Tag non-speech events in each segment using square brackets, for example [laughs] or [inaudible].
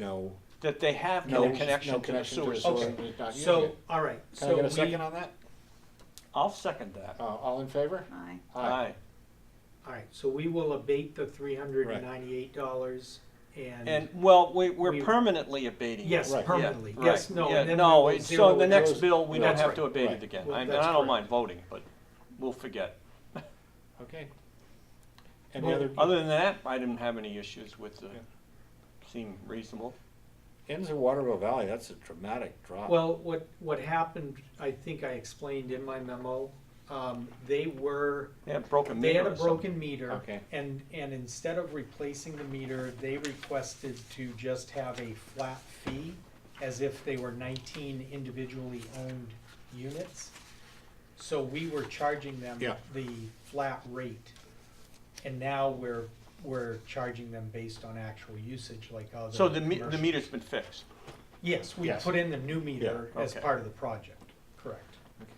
no, that they have no, no no connection to the connection to sewer the sewer. system. Okay. and it's not using So, it. all right, Can I so get a we, second all on that? I'll second that. Uh, all in favor? Aye. Aye. right, so we will abate the three hundred and ninety-eight dollars And, and, well, we, we're We- permanently abating it. yes, Right. permanently, Yeah, yes, right. no. and Yeah, then we no, will it's- zero so the it. next those- bill, we don't That's have to right. abate it Right. again. Well, I, I that's don't correct. mind voting, but we'll forget. Okay. Any Well, other, Other than that, I didn't have any issues with the, Yeah. seemed reasonable. ends in Waterville Valley, that's a dramatic drop. Well, what, what happened, I think I explained in my memo, um, they were, They had broken they meter had a or something. broken meter. Okay. And, and instead of replacing the meter, they requested to just have a flat fee as if they were nineteen individually owned units. So we were charging them Yeah. the flat rate. And now we're, we're charging them based on actual usage like other. So the, me- the commercial- meter's been fixed. Yes, we Yes. put in the new meter Yeah, as okay. part of the project, correct. Okay.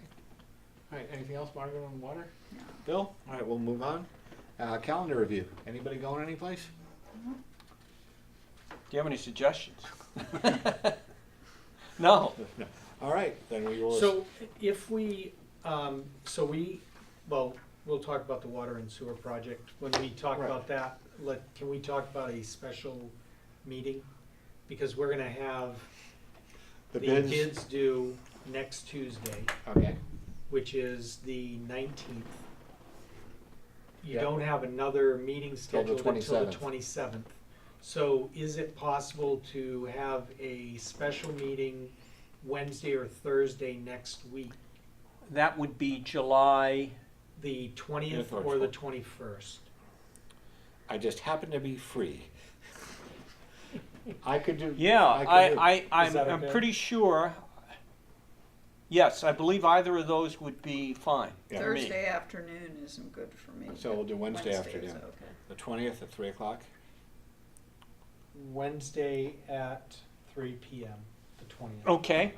All right, anything else, Margaret, on water? No. Bill? All right, we'll move on. Uh, calendar review. Anybody going anyplace? Do you have any suggestions? [laughs] [laughs] No. All right, then we will. So if we, um, so we, well, we'll talk about the water and sewer project. When we talk Right. about that, let, can we talk about a special meeting? Because we're gonna have the bids- bids due next Tuesday, Okay, which is the nineteenth. You Yeah. don't have another Till meeting the scheduled until the 27th. twenty-seventh. So is it possible to have a special meeting Wednesday or Thursday next week? That would be July, the Yeah, twentieth for or the sure. twenty-first. I just happen to be free. I could do. yeah, could do- I, I, Is I'm, that I'm okay? pretty sure. Yes, I believe either of those would be fine Yeah. for me. Thursday afternoon isn't good for me. So we'll do Wednesday is afternoon. okay. The twentieth at three o'clock? Wednesday at three P M, the twentieth. Okay,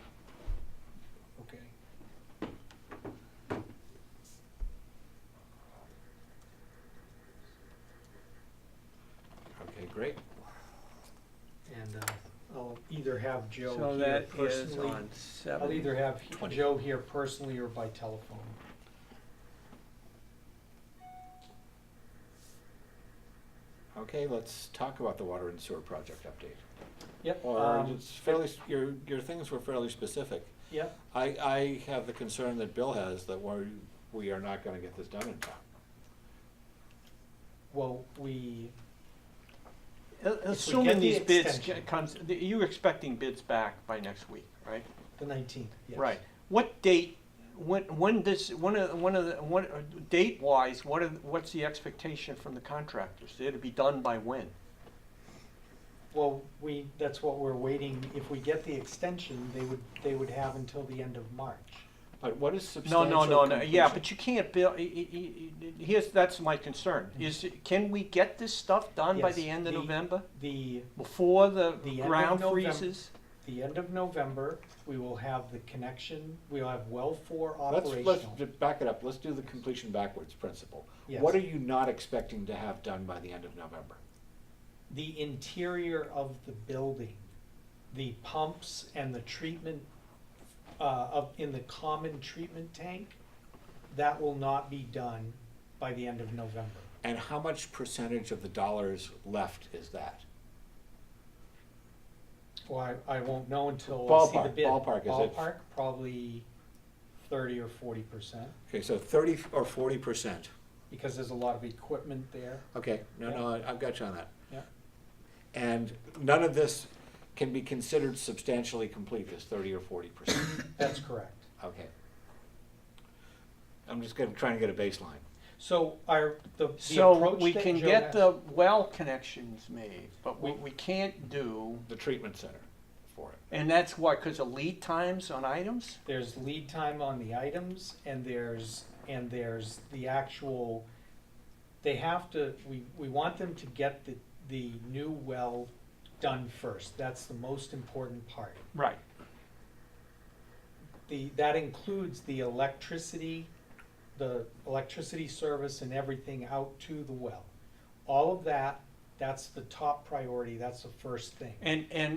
Okay. Okay, great. And, uh, I'll either have Joe so here that is personally. on I'll seven. either have he- 20. Joe here personally or by telephone. Okay, let's talk about the water and sewer project update. Yep. Or um, it's fairly, your, your things were fairly specific. Yep, I, I have the concern that Bill has that we're, we are not gonna get this done in time. well, we, Assuming these the bids, extension. ge- comes, you're expecting bids back by next week, right? the nineteenth, yes. Right. What date, when, when uh, does, one of, one of, the one, date wise, what are, what's the expectation from the contractors? They're to be done by when? Well, we, that's what we're waiting, if we get the extension, they would, they would have until the end of March. But what is No, substantial no, no, no, yeah, completion? but you can't build, here's, that's my concern, is, can we get this stuff done by Mm-hmm. Yes, the end of the- November? The Before the The end of ground November. freezes? the end of November, we will have the connection, we'll have well four Let's, let's operational. ju- back it up, let's do the completion backwards principle. Yes. What are you not expecting to have done by the end of November? The interior of the building, the pumps and the treatment, uh, of, in the common treatment tank, that will not be done by the end of November. And how much percentage of the dollars left is that? Well, I, I won't know until I see the Ballpark, bid. ballpark, is it- Ballpark, probably thirty or forty percent, Okay, so thirty or forty percent. because there's a lot of equipment there, Okay, no, no, I- I've got you on that. yeah. And none of this can be considered substantially complete, this thirty or forty percent. That's correct. Okay. I'm just gonna, trying to get a baseline. So our, the, the So approach we that can Joe get has- the well connections made, but what we can't do, The treatment center for it. and that's why, because of lead times on items? There's lead time on the items and there's, and there's the actual, they have to, we, we want them to get the, the new well done first. That's the most important part. Right. The, that includes the electricity, the electricity service and everything out to the well. All of that, that's the top priority, that's the first thing. And, and